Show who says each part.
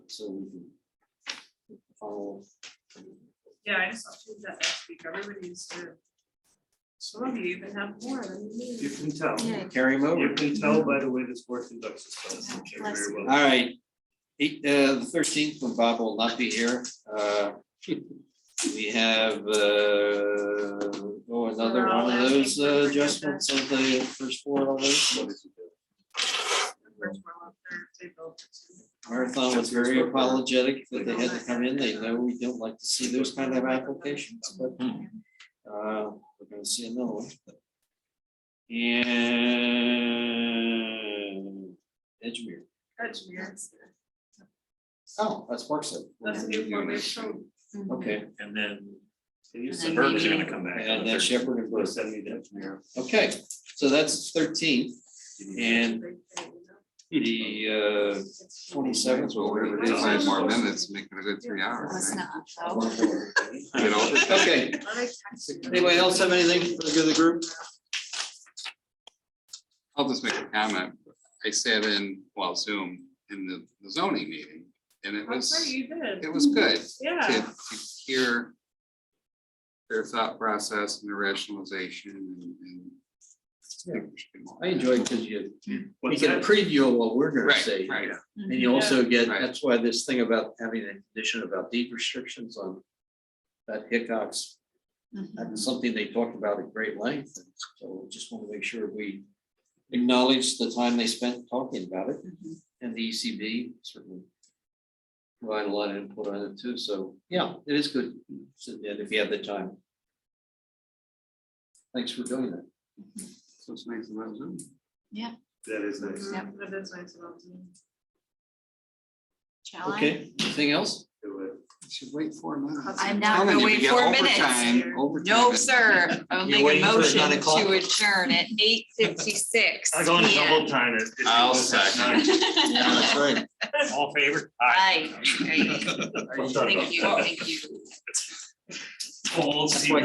Speaker 1: so we can follow.
Speaker 2: Yeah, I just saw that last week, everybody used to. Some of you even have more than
Speaker 3: You
Speaker 2: me.
Speaker 3: can tell,
Speaker 4: Yeah.
Speaker 1: Carry him over.
Speaker 3: you can tell by the way this board conducts itself. They're very
Speaker 4: Bless
Speaker 3: well-
Speaker 1: All right, eight, uh, the thirteenth, when Bob will not be here, uh, we have, uh, oh, another
Speaker 2: We're all
Speaker 1: one of
Speaker 2: asking
Speaker 1: those
Speaker 2: for
Speaker 1: uh,
Speaker 2: forgiveness.
Speaker 1: adjustments of the first four of those.
Speaker 2: The first one up there, they built it.
Speaker 1: Marathon was very apologetic that they had to come in, they know we don't like to see those kind of applications, but, uh, we're gonna see another one. And Edgemere,
Speaker 2: That's weird.
Speaker 1: oh, that's Parkside.
Speaker 2: That's a new formation.
Speaker 1: Okay.
Speaker 3: And then.
Speaker 4: And then
Speaker 3: Suburbs are gonna
Speaker 4: maybe-
Speaker 3: come back.
Speaker 1: And then Shepherd and Bruce.
Speaker 3: Send me that.
Speaker 1: Okay, so that's thirteenth and the uh, twenty seventh.
Speaker 5: Well, we're gonna
Speaker 2: It's
Speaker 5: five
Speaker 2: like
Speaker 5: more minutes, make it a good three hours,
Speaker 4: Let's
Speaker 5: right?
Speaker 4: not, though.
Speaker 5: You know,
Speaker 1: Okay, anybody else have anything for the good of the group?
Speaker 5: I'll just make a comment. I sat in, well, Zoom, in the the zoning meeting, and it
Speaker 2: That's right,
Speaker 5: was,
Speaker 2: you did,
Speaker 5: it was good to
Speaker 2: yeah.
Speaker 5: to hear their thought process and their rationalization and- and.
Speaker 6: I enjoy it because you, you
Speaker 3: What's
Speaker 6: get a
Speaker 3: that?
Speaker 6: preview of what we're gonna
Speaker 5: Right,
Speaker 6: say.
Speaker 5: right.
Speaker 4: Mm-hmm.
Speaker 6: And you also get,
Speaker 5: Right.
Speaker 6: that's why this thing about having a condition about deed restrictions on that Hickox,
Speaker 4: Mhm.
Speaker 6: that's something they talked about at great length. and So just want to make sure we,
Speaker 1: Acknowledge the time they spent talking about it
Speaker 4: Mhm.
Speaker 6: and the ECB certainly,
Speaker 1: provide a lot of input on it too, so, yeah, it is good, so, yeah, if you have the time. Thanks for doing that.
Speaker 5: So it's nice about Zoom.
Speaker 3: That is nice.
Speaker 2: Mhm, That is nice about you.
Speaker 4: Shall I?
Speaker 1: Okay, anything else?
Speaker 3: Do it.
Speaker 5: You Should wait four minutes.
Speaker 4: I'm not
Speaker 5: Telling
Speaker 4: gonna
Speaker 5: you, we
Speaker 4: wait
Speaker 5: get
Speaker 4: four minutes.
Speaker 5: overtime, overtime.
Speaker 4: No, sir. I will
Speaker 1: You're
Speaker 4: make a
Speaker 1: waiting for
Speaker 4: motion
Speaker 1: nine o'clock?
Speaker 4: to adjourn at eight fifty-six.
Speaker 3: I'll go and double time it.
Speaker 5: I'll second.
Speaker 1: That's right.
Speaker 3: All in favor?
Speaker 4: Aye. Aye. Thank you, thank you.
Speaker 3: Full seat.